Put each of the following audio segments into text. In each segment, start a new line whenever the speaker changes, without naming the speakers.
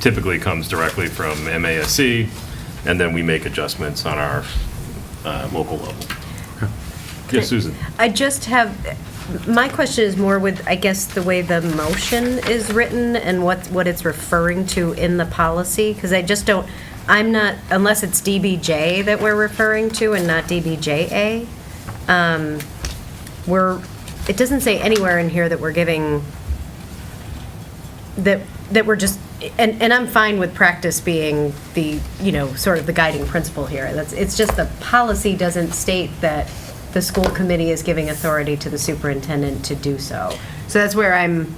typically comes directly from MASC, and then we make adjustments on our uh, local level. Yes, Susan?
I just have, my question is more with, I guess, the way the motion is written and what, what it's referring to in the policy, because I just don't, I'm not, unless it's DBJ that we're referring to and not DBJA, um, we're, it doesn't say anywhere in here that we're giving, that, that we're just, and, and I'm fine with practice being the, you know, sort of the guiding principle here. That's, it's just the policy doesn't state that the school committee is giving authority to the superintendent to do so. So that's where I'm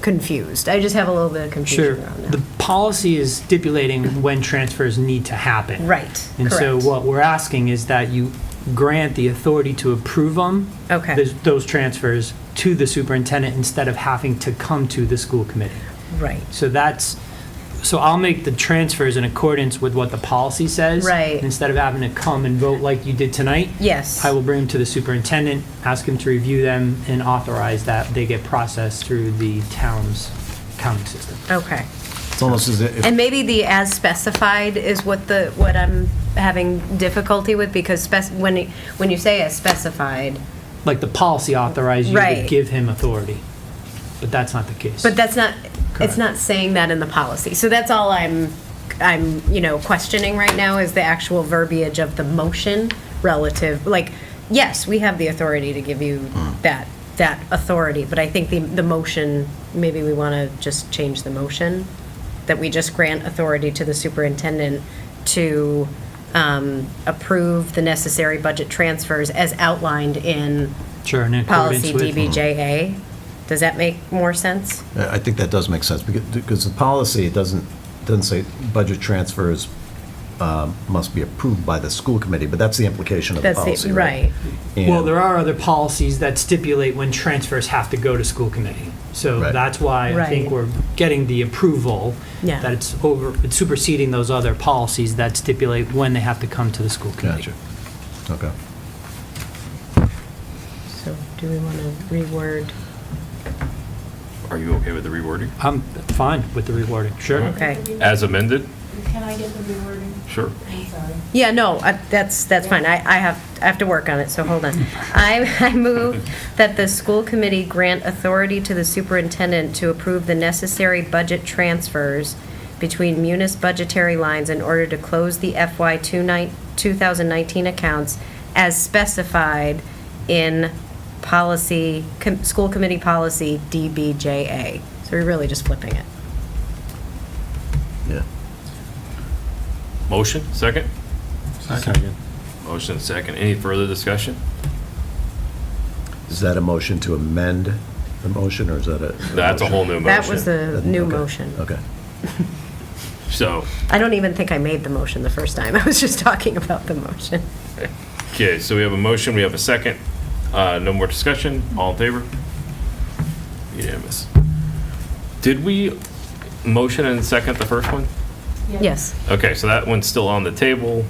confused. I just have a little bit of
Sure.
confusion around
The
that.
policy is stipulating when transfers need to happen.
Right,
And so
correct.
what we're asking is that you grant the authority to approve them.
Okay.
Those transfers to the superintendent instead of having to come to the school committee.
Right.
So that's, so I'll make the transfers in accordance with what the policy says.
Right.
Instead of having to come and vote like you did tonight.
Yes.
I will bring them to the superintendent, ask him to review them and authorize that they get processed through the town's counting system.
Okay.
It's almost as if,
And maybe the as specified is what the, what I'm having difficulty with, because spec, when, you- when you say as specified,
like the policy authorized you to
Right.
give him authority, but that's not the case.
But that's not, it's
Correct.
not saying that in the policy. So that's all I'm, I'm, you know, questioning right now is the actual verbiage of the motion relative, like, yes, we have the authority to give you
Hmm.
that, that authority, but I think the, the motion, maybe we want to just change the motion, that we just grant authority to the superintendent to um, approve the necessary budget transfers as outlined in
Sure, in accordance
policy
with-
DBJA. Does that make more sense?
I think that does make sense, because because the policy doesn't, doesn't say budget transfers um, must be approved by the school committee, but that's the implication of the
That's the-
policy,
right.
right?
Well,
And-
there are other policies that stipulate when transfers have to go to school committee. So
Right.
that's why I think
Right.
we're getting the approval
Yeah.
that it's over, it's superseding those other policies that stipulate when they have to come to the school committee.
Gotcha. Okay.
So do we want to reword?
Are you okay with the rewording?
I'm fine with the rewarding, sure.
Okay.
As amended?
Can I get the rewording?
Sure.
I'm sorry.
Yeah, no, I- that's, that's fine. I, I have, I have to work on it, so hold on. I, I move that the school committee grant authority to the superintendent to approve the necessary budget transfers between munis budgetary lines in order to close the FY 2019 accounts as specified in policy, com- school committee policy DBJA. So we're really just flipping it.
Yeah.
Motion, second?
Second.
Motion, second. Any further discussion?
Is that a motion to amend the motion, or is that a?
That's a whole new motion.
That was the new
Okay.
motion.
Okay.
So,
I don't even think I made the motion the first time. I was just talking about the motion.
okay, so we have a motion, we have a second. Uh, No more discussion, all in favor? Unanimous. Did we motion and second the first one?
Yes.
Okay, so that one's still on the table.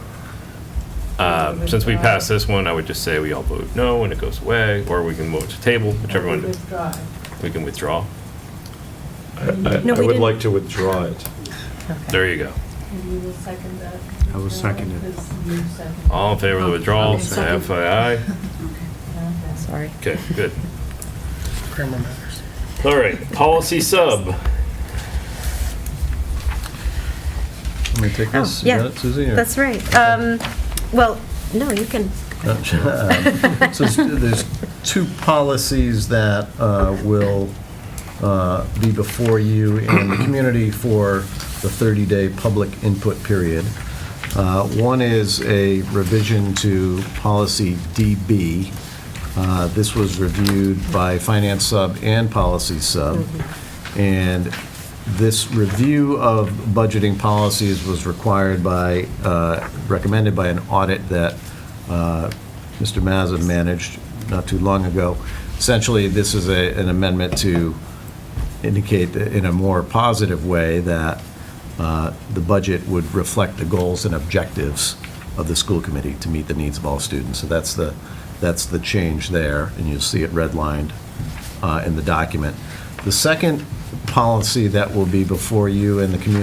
Um, Since we passed this one, I would just say we all vote no and it goes away, or we can vote to table, whichever one,
Withdraw.
we can withdraw.
I
No,
I
we
would
didn't.
like to withdraw it.
There you go.
And you will second that?
I will second it.
Because you seconded
All in favor of the withdrawal,
Okay,
say
second.
FYI.
Okay.
Sorry.
Okay, good. All right, policy sub.
Oh,
Let me take
Oh,
this. You got
yeah.
it, Suzie, or-
That's right. Um, Well, no, you can,
Um, So there's- there's two policies that uh, will uh, be before you in the community for the 30-day public input period. Uh, One is a revision to policy DB. Uh, This was reviewed by Finance Sub and Policy Sub. And this review of budgeting policies was required by, uh, recommended by an audit that uh, Mr. Mazza managed not too long ago. Essentially, this is a- an amendment to indicate in a more positive way that uh, the budget would reflect the goals and objectives of the school committee to meet the needs of all students. So that's the, that's the change there, and you'll see it redlined uh, in the document. The second policy that will be before you in the community